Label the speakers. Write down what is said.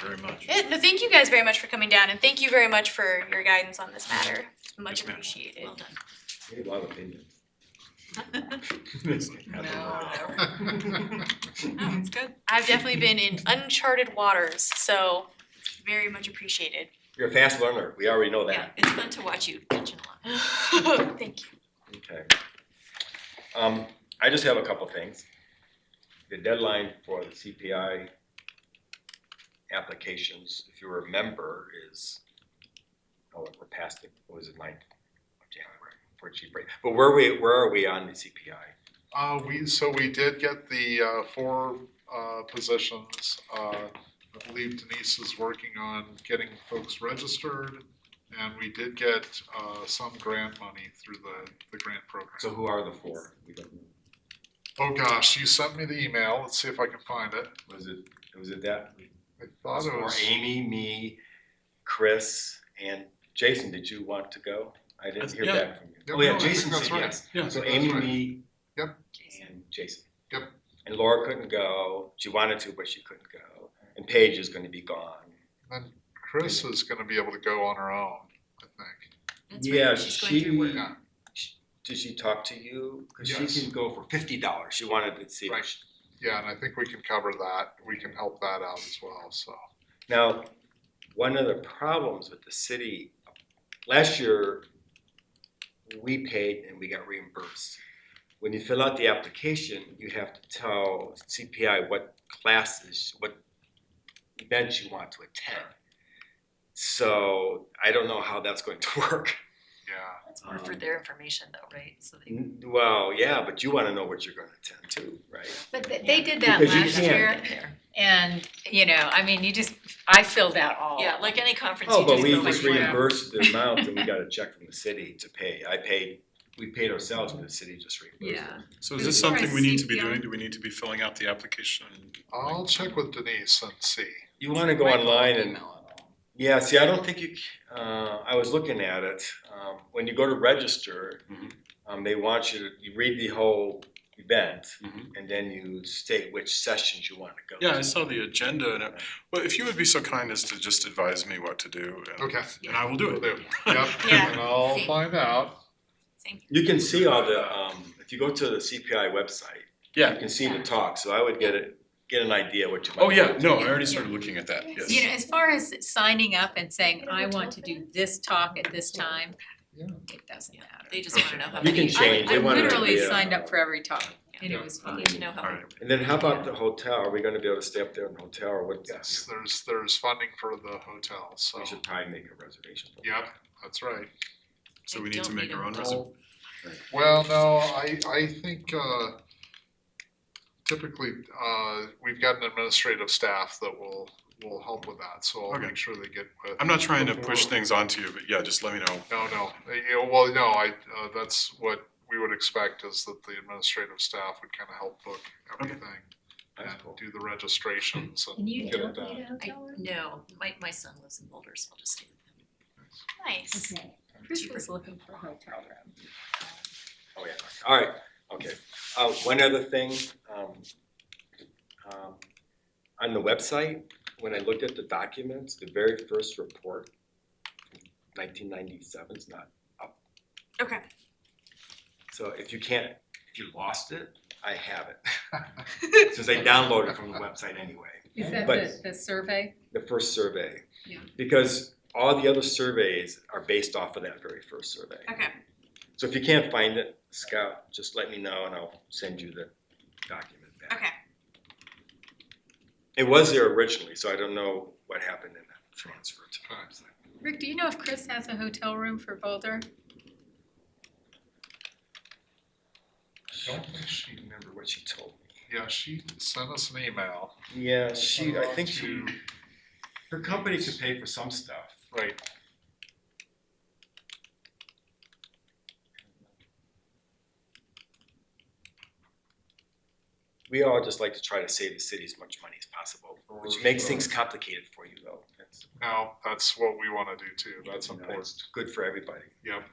Speaker 1: very much.
Speaker 2: Yeah, no, thank you guys very much for coming down and thank you very much for your guidance on this matter. Much
Speaker 1: Yes, ma'am.
Speaker 2: appreciated.
Speaker 3: Well done.
Speaker 4: We have a lot of opinions.
Speaker 3: No, it's good.
Speaker 2: Oh, I've definitely been in uncharted waters, so very much appreciated.
Speaker 4: You're a fast learner, we already know
Speaker 3: Yeah,
Speaker 4: that.
Speaker 3: it's fun to watch you catching along.
Speaker 2: Thank you.
Speaker 4: Okay. Um, I just have a couple things. The deadline for the CPI applications, if you remember, is, oh, we're past it, what was it, ninth of January, for cheap rate. But where we, where are we on the CPI?
Speaker 5: Uh, we, so we did get the, uh, four, uh, positions. Uh, I believe Denise is working on getting folks registered. And we did get, uh, some grant money through the, the grant
Speaker 4: So
Speaker 5: program.
Speaker 4: who are the four? We don't know.
Speaker 5: Oh gosh, you sent me the email. Let's see if I can find it.
Speaker 4: Was it, was it that?
Speaker 5: I thought it
Speaker 4: Or
Speaker 5: was,
Speaker 4: Amy, me, Chris, and Jason, did you want to go? I didn't hear
Speaker 1: Yeah.
Speaker 4: back from you.
Speaker 5: Yeah,
Speaker 4: Oh, yeah,
Speaker 5: no, I think
Speaker 4: Jason
Speaker 5: that's
Speaker 4: said
Speaker 5: right.
Speaker 4: yes.
Speaker 1: Yeah.
Speaker 4: So
Speaker 5: That's
Speaker 4: Amy,
Speaker 5: right.
Speaker 4: me,
Speaker 3: Jason.
Speaker 4: and Jason.
Speaker 5: Yep.
Speaker 4: And Laura couldn't go. She wanted to, but she couldn't go. And Paige is gonna be gone.
Speaker 5: Chris is gonna be able to go on her own, I think.
Speaker 3: That's right,
Speaker 4: Yeah,
Speaker 3: she's going through work.
Speaker 4: she-
Speaker 5: Yeah,
Speaker 4: Did she talk to you? Cause she
Speaker 5: Yes.
Speaker 4: can go for fifty dollars. She wanted to see. if
Speaker 5: Right.
Speaker 4: she-
Speaker 5: yeah, and I think we can cover that. We can help that out as well, so.
Speaker 4: Now, one of the problems with the city, last year, we paid and we got reimbursed. When you fill out the application, you have to tell CPI what classes, what events you want to attend. So I don't know how that's going to work.
Speaker 5: Yeah,
Speaker 3: That's more for their information though, right? So
Speaker 4: Mm,
Speaker 3: they.
Speaker 4: Well, yeah, but you wanna know what you're gonna attend to, right?
Speaker 6: But they, they did that
Speaker 4: Because you
Speaker 6: last
Speaker 4: can't.
Speaker 6: year, and, you know, I mean, you just, I filled out all.
Speaker 3: Yeah, like any conference,
Speaker 4: Oh,
Speaker 3: you
Speaker 4: but
Speaker 3: just
Speaker 4: we
Speaker 3: go
Speaker 4: just
Speaker 3: like.
Speaker 4: reimbursed the amount and we got a check from the city to pay. I paid, we paid ourselves, but the city just reimbursed.
Speaker 6: Yeah.
Speaker 1: So is this
Speaker 6: Before I
Speaker 1: something we need to be
Speaker 6: CPR.
Speaker 1: doing? Do we need to be filling out the application?
Speaker 5: I'll check with Denise and see.
Speaker 4: You wanna go online and, yeah, see, I don't think you, c- uh, I was looking at it, um, when you go to register,
Speaker 1: Mhm.
Speaker 4: um, they want you to, you read the whole event,
Speaker 5: Mm-hmm.
Speaker 1: Mhm.
Speaker 4: and then you state which sessions you wanna go to.
Speaker 1: Yeah, I saw the agenda and, it- well, if you would be so kind as to just advise me what to do. and-
Speaker 5: Okay.
Speaker 1: And I will do
Speaker 5: Will
Speaker 1: it.
Speaker 5: do. Yep,
Speaker 2: Yeah.
Speaker 5: and I'll
Speaker 2: See.
Speaker 5: find out.
Speaker 4: You can see all the, um, if you go to the CPI website, you
Speaker 1: Yeah,
Speaker 4: can see the talk, so I would get it, get an idea what you might.
Speaker 1: oh yeah,
Speaker 4: want.
Speaker 1: no, I already started looking at that, yes.
Speaker 6: You know, as far as signing up and saying, I want to do this talk at this time,
Speaker 5: Yeah.
Speaker 6: it doesn't matter.
Speaker 3: They just wanna know how
Speaker 4: You
Speaker 3: many.
Speaker 4: can change.
Speaker 6: I
Speaker 4: They wanted to
Speaker 6: literally
Speaker 4: be uh, a-
Speaker 6: signed up for every talk, and
Speaker 5: Yeah.
Speaker 6: it was
Speaker 3: I
Speaker 6: fun.
Speaker 3: need to know how many.
Speaker 4: And then how about the hotel, are we gonna be able to stay up there in the hotel, or what?
Speaker 5: Yes, there's, there's funding for the hotel, so,
Speaker 4: We should probably make a reservation. for that.
Speaker 5: yep, that's right.
Speaker 1: So
Speaker 3: I
Speaker 1: we need to
Speaker 3: don't
Speaker 1: make
Speaker 3: need
Speaker 1: our
Speaker 3: a
Speaker 1: own
Speaker 3: whole-
Speaker 1: reservation.
Speaker 5: Well, no, I, I think, uh, typically, uh, we've got an administrative staff that will, will help with that, so I'll
Speaker 1: Okay.
Speaker 5: make sure they get with.
Speaker 1: I'm not trying to push things onto you, but yeah, just let me know.
Speaker 5: No, no, Uh, yeah, well, no, I, uh, that's what we would expect is that the administrative staff would kind of help book everything and
Speaker 4: That's cool.
Speaker 5: do the registrations and
Speaker 6: And you
Speaker 5: get it done.
Speaker 6: don't need a hotel room?
Speaker 3: I, no, my, my son lives in Boulder, so I'll just stay with him.
Speaker 2: Nice.
Speaker 6: Okay, Chris was looking for a hotel room.
Speaker 4: Oh, yeah, all right, okay. Uh, one other thing, um, um, on the website, when I looked at the documents, the very first report, nineteen ninety-seven is not up.
Speaker 2: Okay.
Speaker 4: So if you can't, if you lost it, I have it. Since I downloaded it from the website anyway,
Speaker 6: Is that
Speaker 4: But-
Speaker 6: the, the survey?
Speaker 4: the first survey.
Speaker 6: Yeah.
Speaker 4: Because all the other surveys are based off of that very first survey.
Speaker 2: Okay.
Speaker 4: So if you can't find it, Scout, just let me know and I'll send you the document back.
Speaker 2: Okay.
Speaker 4: It was there originally, so I don't know what happened in that transfer to the website.
Speaker 6: Rick, do you know if Chris has a hotel room for Boulder?
Speaker 5: Don't think
Speaker 4: I
Speaker 5: she,
Speaker 4: remember what she told
Speaker 5: yeah, she sent us an email.
Speaker 4: me. Yeah, she, I
Speaker 5: uh,
Speaker 4: think she,
Speaker 5: to-
Speaker 4: her company could pay for some stuff.
Speaker 5: Right,
Speaker 4: We all just like to try to save the city as much money as possible, which makes things complicated for you though. That's-
Speaker 5: Now, that's what we wanna do too, that's
Speaker 4: you know,
Speaker 5: important,
Speaker 4: it's Good for everybody.
Speaker 5: yep,